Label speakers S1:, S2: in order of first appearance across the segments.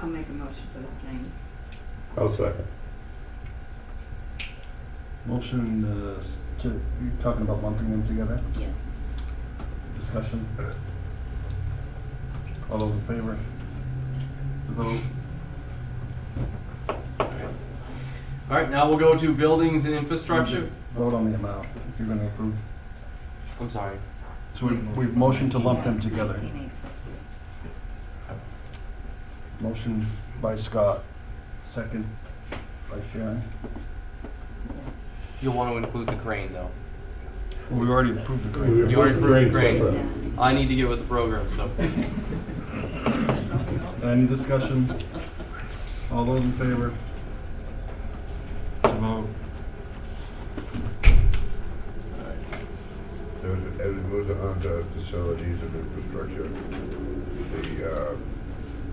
S1: I'll make a motion for the same.
S2: I'll second.
S3: Motion uh, to, you're talking about lumping them together,
S1: Yes.
S3: discussion? All those in favor? The vote?
S4: All right, now we'll go to buildings and infrastructure.
S3: Vote on the amount, if you're gonna approve.
S4: I'm sorry.
S3: So we- we've motioned to lump them together.
S1: 19,850.
S3: Motion by Scott, second by Sharon.
S1: Yes.
S4: You'll want to include the crane, though.
S3: Well, we already approved the
S2: We
S3: grant.
S4: You already approved the
S2: Great.
S4: crane. I need to get with the program, so.
S3: Any discussion? All those in favor? The vote?
S2: As it goes on to facilities and infrastructure, the uh,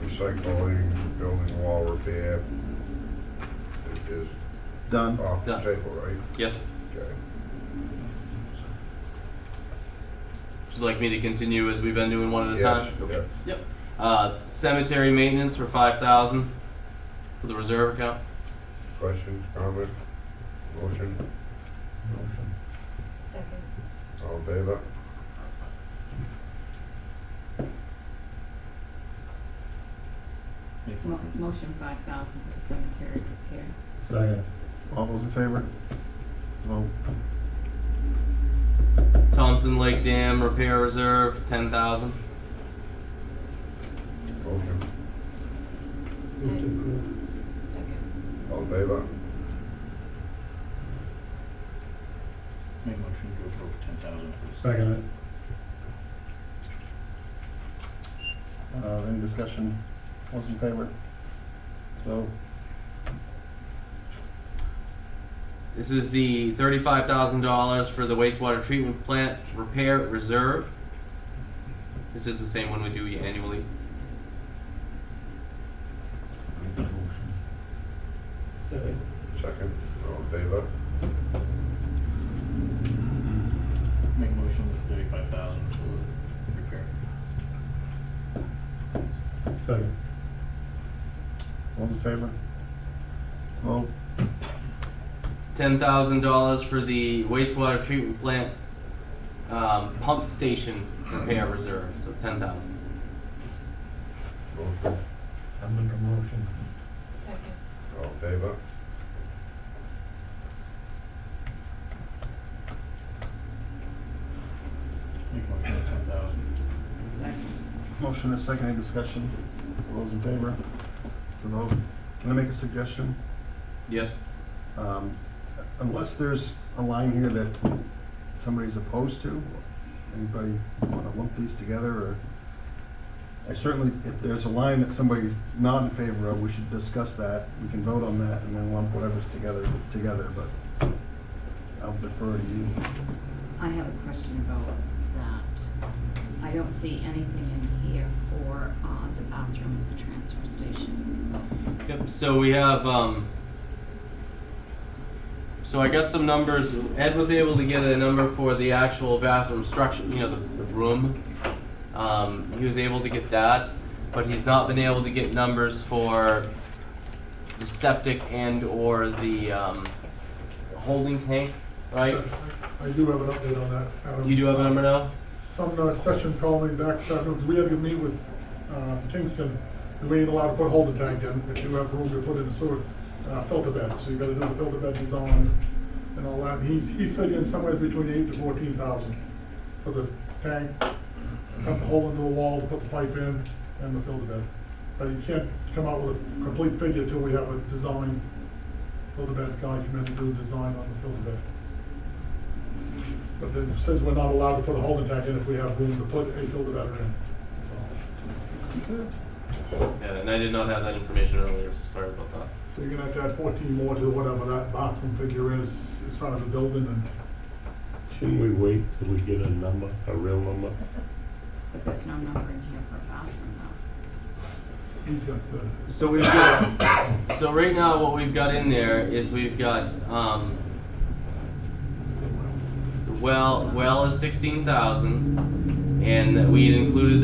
S2: recycling, building wall repair is- is
S3: Done.
S2: off the
S4: Done.
S2: table, right?
S4: Yes,
S2: Okay.
S4: would you like me to continue as we've been doing one at a
S2: Yes,
S4: time?
S2: yeah.
S4: Yep. Uh, cemetery maintenance for five thousand for the reserve account.
S2: Questions, comments, motion, all in favor?
S1: Mo- Motion five thousand for the cemetery repair.
S3: Second. All those in favor? The vote?
S4: Thompson Lake Dam repair reserve, ten thousand.
S2: Motion,
S1: Second.
S2: all in favor?
S5: Make motion to approve ten thousand for the
S3: Second. Uh, any discussion? All those in favor? So,
S4: This is the thirty-five thousand dollars for the wastewater treatment plant repair reserve. This is the same one we do annually.
S2: Second, all in favor?
S5: Make motion with thirty-five thousand for the repair.
S3: Second. All in favor? Vote.
S4: ten thousand dollars for the wastewater treatment plant um, pump station repair reserve. So ten thousand.
S2: Motion,
S6: I make a motion.
S2: all in favor?
S5: Make motion with ten thousand.
S1: Second.
S3: Motion is second, any discussion? All those in favor? So vote. Can I make a suggestion?
S4: Yes.
S3: Um, unless there's a line here that somebody's opposed to, anybody want to lump these together, or? I certainly, if there's a line that somebody's not in favor of, we should discuss that, we can vote on that, and then lump whatever's together, together, but I'll defer to you.
S1: I have a question about that. I don't see anything in here for, uh, the bathroom at the transfer station.
S4: Yep. So we have. Um, so I got some numbers. Ed was able to get a number for the actual bathroom structure. You know, the, the room. Um, he was able to get that, but he's not been able to get numbers for the septic and or the um, holding tank, right?
S7: I do have an update on that. Adam.
S4: You do have a number now?
S7: Sumner Session called me back, so we had to meet with uh, Kingston, and we ain't allowed to put holding tank in, but you have room to put in a sewer uh, filter bed, so you gotta do the filter bed design and all that. He's, he's figuring somewhere between eight to fourteen thousand for the tank, cut the hole into the wall, to put the pipe in, and the filter bed. But you can't come out with a complete figure till we have a design, filter bed guy come in and do the design on the filter bed. But then it says we're not allowed to put a holding tank in if we have room to put a filter battery in.
S4: Yeah, and I did not have that information earlier, so sorry about that.
S7: So you're gonna have to add fourteen more to whatever that bathroom figure is in front of the building and.
S8: Shouldn't we wait till we get a number, a real number?
S1: But there's no number in here for a bathroom though.
S7: He's got the,
S4: So we've got, so right now what we've got in there is we've got, um, the well, well is sixteen thousand, and we had included